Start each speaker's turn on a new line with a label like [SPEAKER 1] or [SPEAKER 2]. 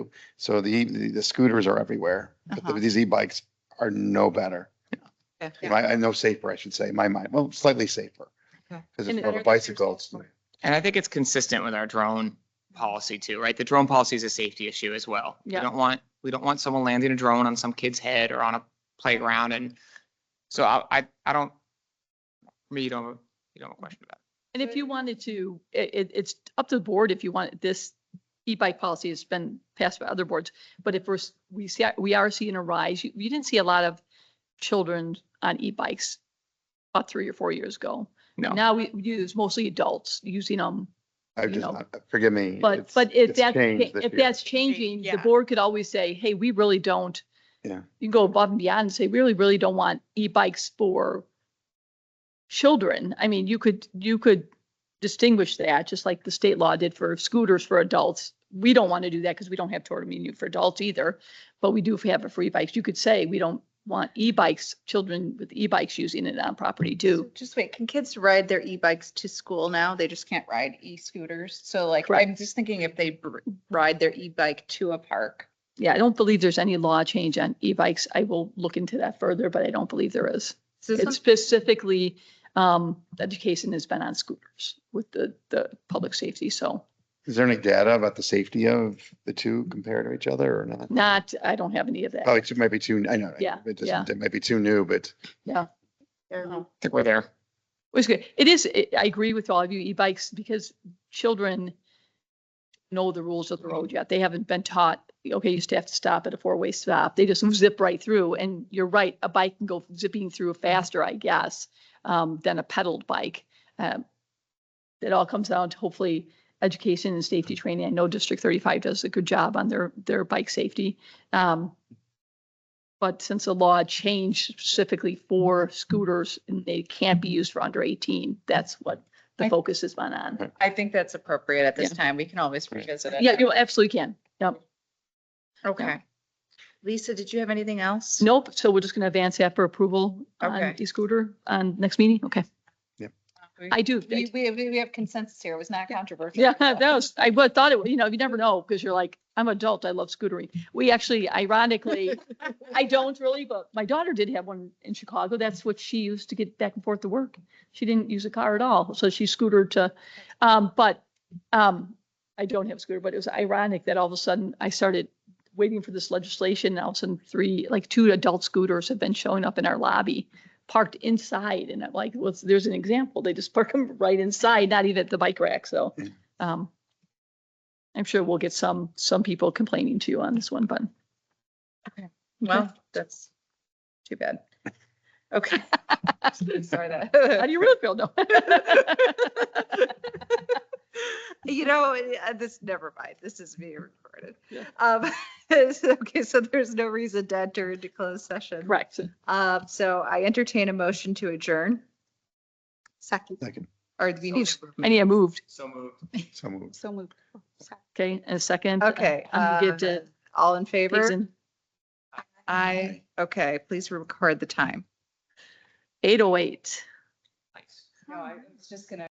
[SPEAKER 1] So the, the scooters are everywhere, but the-
[SPEAKER 2] Uh-huh.
[SPEAKER 1] these e-bikes are no better. You know, I, I know safer, I should say, in my mind, well, slightly safer.
[SPEAKER 2] Okay.
[SPEAKER 1] Because
[SPEAKER 2] And
[SPEAKER 1] it's more of
[SPEAKER 2] better
[SPEAKER 1] a
[SPEAKER 2] than
[SPEAKER 1] bicycle.
[SPEAKER 2] yours.
[SPEAKER 1] it's-
[SPEAKER 3] And I think it's consistent with our drone policy too, right? The drone policy is a safety issue as well. We
[SPEAKER 2] Yeah.
[SPEAKER 3] don't want, we don't want someone landing a drone on some kid's head or on a playground and so I, I, I don't, me, you don't, you don't have a question about it.
[SPEAKER 2] And if you wanted to, it, it, it's up to the board if you want, this e-bike policy has been passed by other boards. But if we're, s- we see, we are seeing a rise, you, you didn't see a lot of children on e-bikes about three or four years ago.
[SPEAKER 3] No.
[SPEAKER 2] Now we we use mostly adults using them,
[SPEAKER 1] I
[SPEAKER 2] You
[SPEAKER 1] just,
[SPEAKER 2] know.
[SPEAKER 1] not- forgive me.
[SPEAKER 2] but,
[SPEAKER 1] it's-
[SPEAKER 2] but if
[SPEAKER 1] it's
[SPEAKER 2] that's,
[SPEAKER 1] changed this
[SPEAKER 2] if
[SPEAKER 1] year.
[SPEAKER 2] that's changing, the
[SPEAKER 4] yeah.
[SPEAKER 2] board could always say, hey, we really don't.
[SPEAKER 1] Yeah.
[SPEAKER 2] You can go above and beyond and say, "We really, really don't want e-bikes for children. I mean, you could, you could distinguish that, just like the state law did for scooters for adults. We don't want to do that because we don't have toward immunity for adults either, but we do have a free bikes. You could say, we don't want e-bikes, children with e-bikes using it on property
[SPEAKER 4] So
[SPEAKER 2] too.
[SPEAKER 4] Just wait, can kids ride their e-bikes to school now? They just can't ride e-scooters. So like, I'm
[SPEAKER 2] Correct.
[SPEAKER 4] just thinking if they br- ride their e-bike to a park.
[SPEAKER 2] Yeah, I don't believe there's any law change on e-bikes. I will look into that further, but I don't believe there is.
[SPEAKER 4] So
[SPEAKER 2] It's
[SPEAKER 4] some-
[SPEAKER 2] specifically, um, education has been on scooters with the, the public safety, so
[SPEAKER 1] Is there any data about the safety of the two compared to each other or not?
[SPEAKER 2] not, I don't have any of
[SPEAKER 1] Oh,
[SPEAKER 2] that.
[SPEAKER 1] it might be too, I know. I-
[SPEAKER 2] Yeah,
[SPEAKER 1] It
[SPEAKER 2] yeah.
[SPEAKER 1] doesn't, it might be too new, but
[SPEAKER 4] Oh,
[SPEAKER 3] I think we're there.
[SPEAKER 2] It's good. It is, it- I agree with all of you, e-bikes, because children know the rules of the road yet. They haven't been taught, okay, you just have to stop at a four-way stop. They just zip right through, and you're right, a bike can go zipping through faster, I guess, um, than a pedaled bike. Um, It all comes down to hopefully education and safety training. I know District thirty-five does a good job on their, their bike safety. Um, But since the law changed specifically for scooters and they can't be used for under eighteen, that's what the
[SPEAKER 4] I-
[SPEAKER 2] focus has been on.
[SPEAKER 4] I think that's appropriate at this time. We can always
[SPEAKER 1] Right.
[SPEAKER 4] revisit it.
[SPEAKER 2] Yeah, you absolutely can. Yep.
[SPEAKER 4] Okay. Lisa, did you have anything else?
[SPEAKER 2] Nope. So we're just going to advance that for approval on
[SPEAKER 4] Okay.
[SPEAKER 2] e-scooter on next meeting. Okay.
[SPEAKER 4] We-
[SPEAKER 2] I do.
[SPEAKER 4] We, we, we we have consensus here. It was not controversial.
[SPEAKER 2] Yeah, that was, I would thought it, would- you know, you never know because you're like, I'm an adult. I love scootering. We actually ironically, I don't really, but my daughter did have one in Chicago. That's what she used to get back and forth to work. She didn't use a car at all. So she scootered to, um, but, um, I don't have a scooter, but it was ironic that all of a sudden I started waiting for this legislation. And all of a sudden three, like two adult scooters have been showing up in our lobby parked inside. And I'm like, well, there's an example. They just park them right inside, not even at the bike rack. So, um, I'm sure we'll get some, some people complaining to you on this one, but.
[SPEAKER 4] Well, that's too bad. Okay. Sorry
[SPEAKER 2] How
[SPEAKER 4] that.
[SPEAKER 2] do you really feel? No.
[SPEAKER 4] You know, uh, this, never mind, this is being recorded.
[SPEAKER 2] Yeah.
[SPEAKER 4] Um, so- Okay, so there's no reason to enter into closed session.
[SPEAKER 2] Correct.
[SPEAKER 4] Um, So I entertain a motion to adjourn. Second,
[SPEAKER 1] I can,
[SPEAKER 4] or we need,
[SPEAKER 2] I need a moved.
[SPEAKER 3] So moved.
[SPEAKER 1] so moved.
[SPEAKER 4] so moved.
[SPEAKER 2] Okay, and a second.
[SPEAKER 4] Okay.
[SPEAKER 2] I'm gonna give
[SPEAKER 4] uh,
[SPEAKER 2] to
[SPEAKER 4] All in favor?
[SPEAKER 2] Jason.
[SPEAKER 4] Aye. Okay, please record the time.
[SPEAKER 2] Eight oh eight.
[SPEAKER 3] Nice.
[SPEAKER 4] No, I was just gonna.